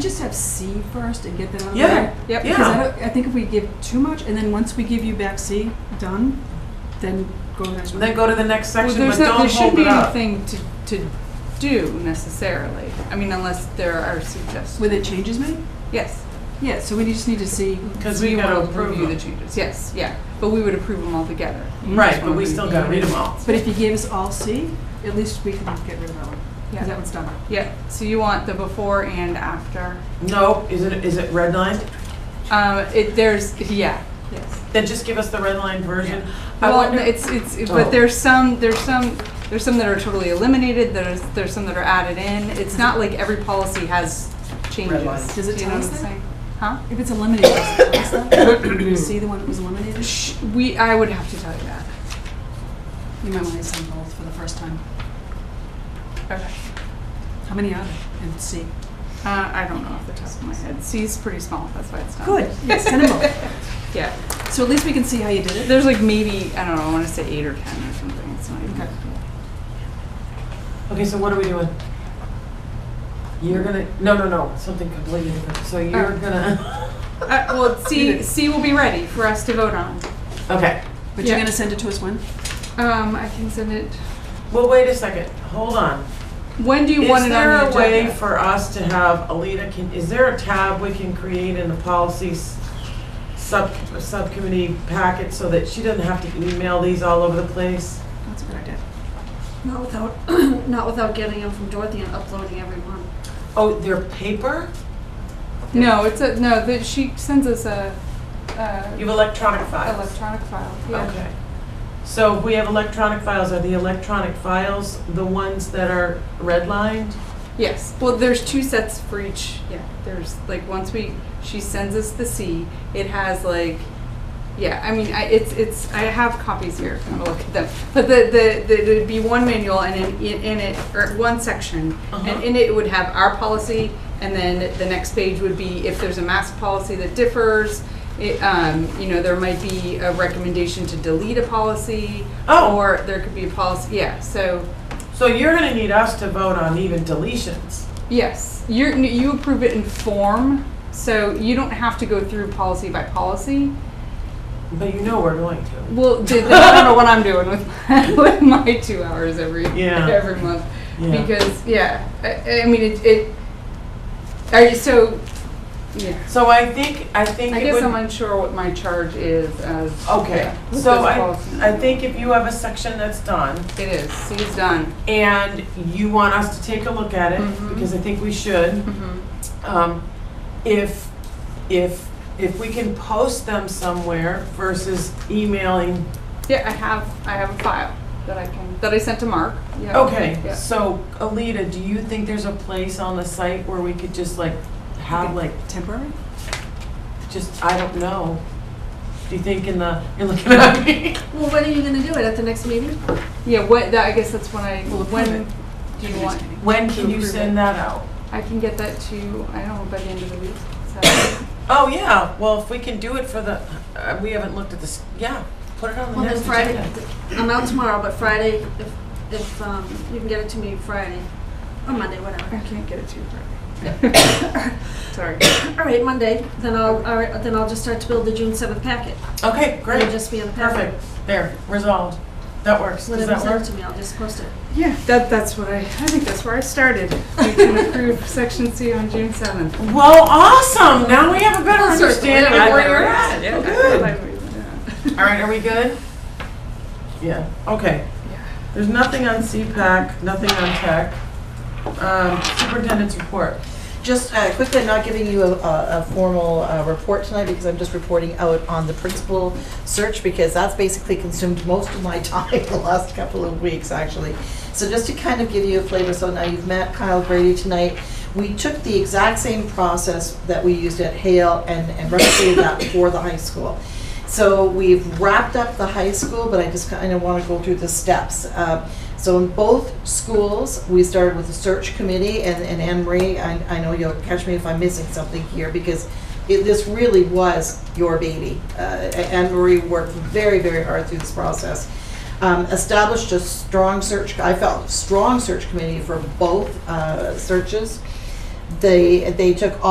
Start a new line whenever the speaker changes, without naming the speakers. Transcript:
Just have C first and get that out of the
Yeah,
way.
yeah.
Because I, don't, I think if we give too much, and then once we give you back C, done, then go to the next one.
Then go to the next
Well,
section, but
there's not, there
don't
shouldn't
hold
be
it up.
anything to, to do necessarily. I mean, unless there are suggestions.
When the changes made?
Yes.
Yeah, so we just need to see.
Because
we
we gotta
want to
approve
review the
them.
changes. Yes, yeah. But we would approve them all together. You
Right,
just
but
wanna
we
be-
still gotta read them all.
But if you give us all C, at least we can get rid of that one.
Yeah.
Because that one's done.
Yeah, so you want the before and after.
No, is it, is it redlined?
Um, it, there's, yeah, yes.
Then just give us the redlined version. I
Well,
wonder,
it's, it's,
Oh.
but there's some, there's some, there's some that are totally eliminated, there's, there's some that are added in. It's not like every policy has changes.
lines.
Does it
Do you
tell
know
us
what I'm
that?
saying? Huh?
If it's eliminated, does it tell us that? C, the one that was eliminated?
Sh- We, I would have to tell you that.
You might want to send both for the first time.
Okay.
How many are there in C?
Uh, I don't know off the top of my head. C's pretty small, that's why it's not.
Good, yes, send them both.
Yeah.
So at least we can see how you did it.
There's like maybe, I don't know, I wanna say eight or ten or something. It's not even.
Okay.
okay, so what are we doing? You're gonna, no, no, no, something completely different. So you're
Oh.
gonna,
Uh, well, C,
Either.
C will be ready for us to vote on.
okay.
But you're
Yeah.
going to send it to us when?
Um, I can send it.
Well, wait a second, hold on.
When do you want
Is
it on
there
the
a way
agenda?
for us to have, Alita, can, is there a tab we can create in the policies sub, subcommittee packet so that she doesn't have to email these all over the place?
That's a good idea.
Not without, not without getting them from Dorothy and uploading every one.
Oh, they're paper?
No, it's a, no, that she sends us a, uh,
You've electronic files?
electronic file, yeah.
Okay. So if we have electronic files, are the electronic files the ones that are redlined?
Yes, well, there's two sets for each, yeah, there's, like, once we, she sends us the C, it has like, yeah, I mean, I, it's, it's, I have copies here, if you want to look at them. But the, the, the, it'd be one manual and in, in in it, or one section,
Uh-huh.
and in it would have our policy, and then the next page would be if there's a mask policy that differs, it, um, you know, there might be a recommendation to delete a policy,
Oh.
or there could be a policy, yeah, so.
So you're gonna need us to vote on even deletions.
Yes, you're, n- you approve it in form, so you don't have to go through policy by policy.
But you know we're going to.
Well, did they, I don't know what I'm doing with my, with my two hours every
Yeah.
every month
Yeah.
because yeah, I, I mean it. it are you, so yeah.
So I think, I think
I
it
guess I'm
would.
unsure what my charge is as
Okay,
yeah, with
so
those
I,
policies.
I think if you have a section that's done
it is. C's done.
and you want us to take a look at it,
Mhm.
because I think we should,
Mm-hmm.
um, if, if, if we can post them somewhere versus emailing
Yeah, I have I have a file that I can that I sent to Mark. Yeah.
Okay,
Yeah.
so Alita, do you think there's a place on the site where we could just like have like,
Temporary?
just, I don't know? Do you think in the, you're looking at me?
Well, when are you gonna do it? At the next meeting?
Yeah, what, that, I guess that's when I,
We'll approve
when
it.
do you want?
When can you
Approve it.
send that out?
I can get that to, you, I don't know, by the end of the week, so.
Oh, yeah, well, if we can do it for the, uh, we haven't looked at this, yeah, put it on the
Well, then
next
Friday,
agenda.
I'm out tomorrow, but Friday, if, if, um, you can get it to me Friday, or Monday, whatever.
I can't get it to you Friday. Sorry.
All right, Monday, then I'll, all right, then I'll just start to build the June seventh packet.
Okay,
It'll
great,
just be in the packet.
perfect, there, resolved. That works, does
Whatever
that
sent
work?
to me, I'll just post it.
Yeah, that, that's what I, I think that's where I started. We can approve section C on June seventh.
Well, awesome, now we have a better
Well, sort of,
understanding of
yeah,
where you're at. Oh, good. All right, are we good? Yeah, okay.
Yeah.
There's nothing on CPAC, nothing on tech. Um, Superintendent's report.
Just uh, quickly, I'm not giving you a- a a formal uh, report tonight because I'm just reporting out on the principal search because that's basically consumed most of my time the last couple of weeks, actually. So just to kind of give you a flavor, so now you've met Kyle Grady tonight. We took the exact same process that we used at Hale and and replicated that for the high school. So we've wrapped up the high school, but I just kind of want to go through the steps. Uh, So in both schools, we started with a search committee, and and Anne Marie, I I know you'll catch me if I'm missing something here, because it- this really was your baby. Uh, A- Anne Marie worked very, very hard through this process. Um, Established a strong search, I felt, strong search committee for both uh, searches. They, they took all